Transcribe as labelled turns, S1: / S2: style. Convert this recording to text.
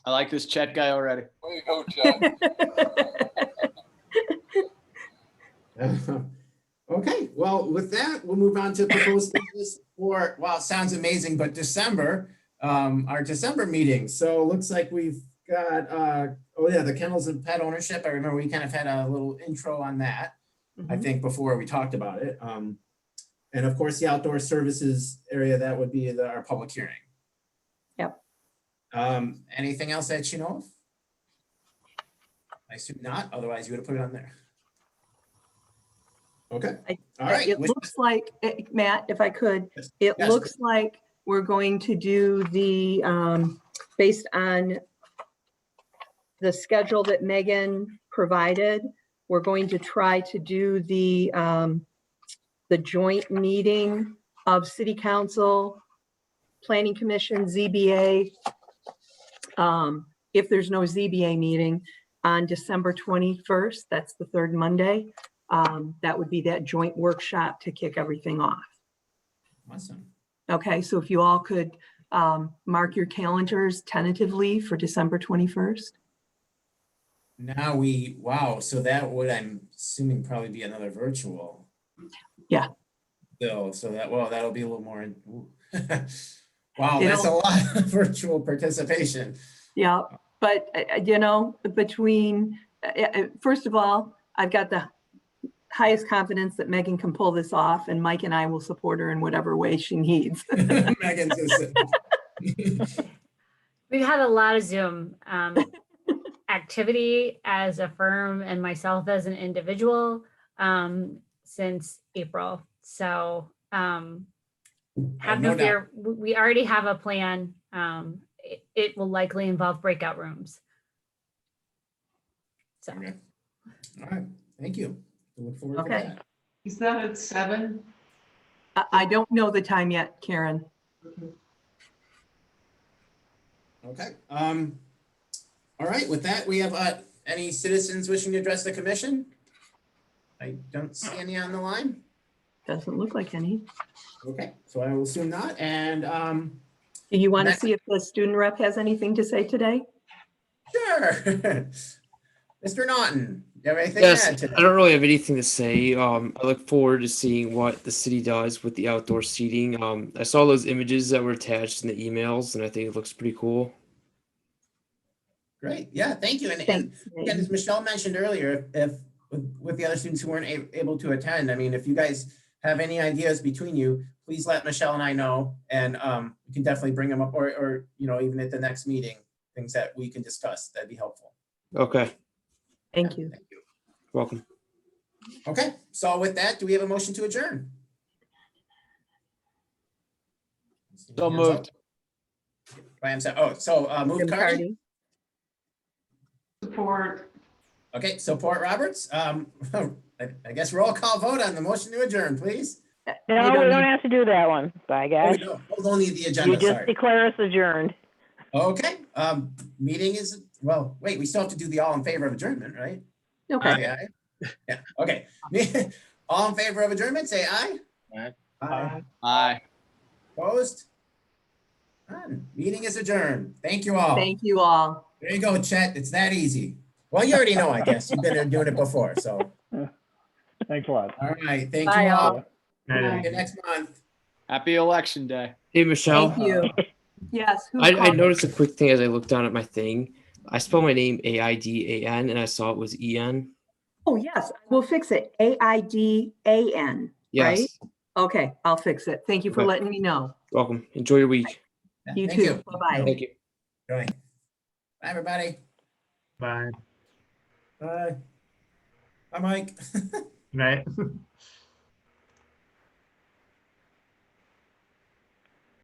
S1: I like this Chet guy already.
S2: Way to go, Chad.
S3: Okay, well, with that, we'll move on to proposed business for, wow, it sounds amazing, but December, um, our December meeting. So it looks like we've got, uh, oh yeah, the kennels and pet ownership. I remember we kind of had a little intro on that, I
S4: Mhm.
S3: think, before we talked about it. Um, and of course, the outdoor services area, that would be the, our public hearing.
S4: Yep.
S3: Um, anything else that you know of? I assume not, otherwise you would have put it on there. Okay,
S4: I-
S3: all right.
S4: It
S3: Which-
S4: looks like, eh, Matt, if I could,
S3: Yes.
S4: it
S3: Yes.
S4: looks like we're going to do the, um, based on the schedule that Megan provided, we're going to try to do the, um, the joint meeting of city council, planning commission, ZBA. um, If there's no ZBA meeting on December 21st, that's the third Monday um, that would be that joint workshop to kick everything off.
S3: Awesome.
S4: Okay, so if you all could um, mark your calendars tentatively for December 21st.
S3: Now we, wow, so that would, I'm assuming probably be another virtual.
S4: Yeah.
S3: So, so that, well, that'll be a little more, in- ooh. wow,
S4: It'll-
S3: that's a lot of virtual participation.
S4: Yeah, but uh, uh, you know, between, uh, uh, first of all, I've got the highest confidence that Megan can pull this off and Mike and I will support her in whatever way she needs.
S3: Megan's just-
S5: We've had a lot of Zoom um, activity as a firm and myself as an individual um, since April. So um, have
S3: no
S5: no,
S3: doubt.
S5: fear. w- We already have a plan. Um, it, it will likely involve breakout rooms. So
S3: Okay. All right, thank you. We Look forward to
S4: Okay.
S3: that.
S6: Is that at seven?
S4: I- I don't know the time yet, Karen.
S3: Okay, um, all right, with that, we have, uh, any citizens wishing to address the commission? I don't see any on the line.
S4: Doesn't look like any.
S3: Okay, so I will assume not, and, um,
S4: Do you want to
S3: Next.
S4: see if the student rep has anything to say today?
S3: Sure. Mr. Naughton, you have anything to
S7: Yes,
S3: add
S7: I
S3: to?
S7: don't really have anything to say. Um, I look forward to seeing what the city does with the outdoor seating. Um, I saw those images that were attached in the emails, and I think it looks pretty cool.
S3: Great, yeah, thank you. And, and
S4: Thanks.
S3: again,
S4: Megan.
S3: as Michelle mentioned earlier, if, with, with the other students who weren't a- able to attend, I mean, if you guys have any ideas between you, please let Michelle and I know, and, um, we can definitely bring them up, or, or, you know, even at the next meeting, things that we can discuss, that'd be helpful.
S7: Okay,
S4: Thank you.
S3: Thank you.
S7: welcome.
S3: Okay, so with that, do we have a motion to adjourn?
S1: So
S3: Hands up.
S1: moved.
S3: I am, so- oh, so, uh, moved Cardi?
S4: Cardi.
S6: Support,
S3: Okay, support Roberts. Um, I I guess roll call vote on the motion to adjourn, please.
S4: You
S8: No,
S4: don't
S8: we don't
S4: need-
S8: have to do that one. Bye,
S3: Oh,
S8: guys.
S3: no, hold Only the
S8: You
S3: agenda,
S8: just
S3: sorry.
S8: declare us adjourned.
S3: Okay, um, meeting is, well, wait, we still have to do the all in favor of adjournment, right?
S4: Okay.
S3: Aye, aye. Yeah, okay. All in favor of adjournment, say aye.
S1: Aye.
S3: Aye.
S1: Aye.
S3: Opposed? None. Meeting is adjourned. Thank you all.
S4: Thank you all.
S3: There you go, Chet. It's that easy. Well, you already know, I guess. You've been doing it before, so.
S9: Thanks a lot.
S3: All right, thank
S4: Bye,
S3: you
S4: all.
S3: all.
S6: Aye.
S3: See you next month.
S1: Happy election day.
S7: Hey, Michelle,
S4: Thank you. Yes. who
S7: I, I
S4: called?
S7: noticed a quick thing as I looked down at my thing. I spelled my name A I D A N and I saw it was E N.
S4: Oh, yes, we'll fix it. A I D A N.
S7: Yes.
S4: Right? Okay, I'll fix it. Thank you for
S7: Okay.
S4: letting me know.
S7: Welcome. Enjoy your week.
S3: Yeah,
S4: You
S3: thank
S4: too. Bye-bye.
S7: Thank you.
S3: Enjoy. Bye, everybody.
S9: Bye.
S3: Bye. Bye, Mike.
S9: Good night.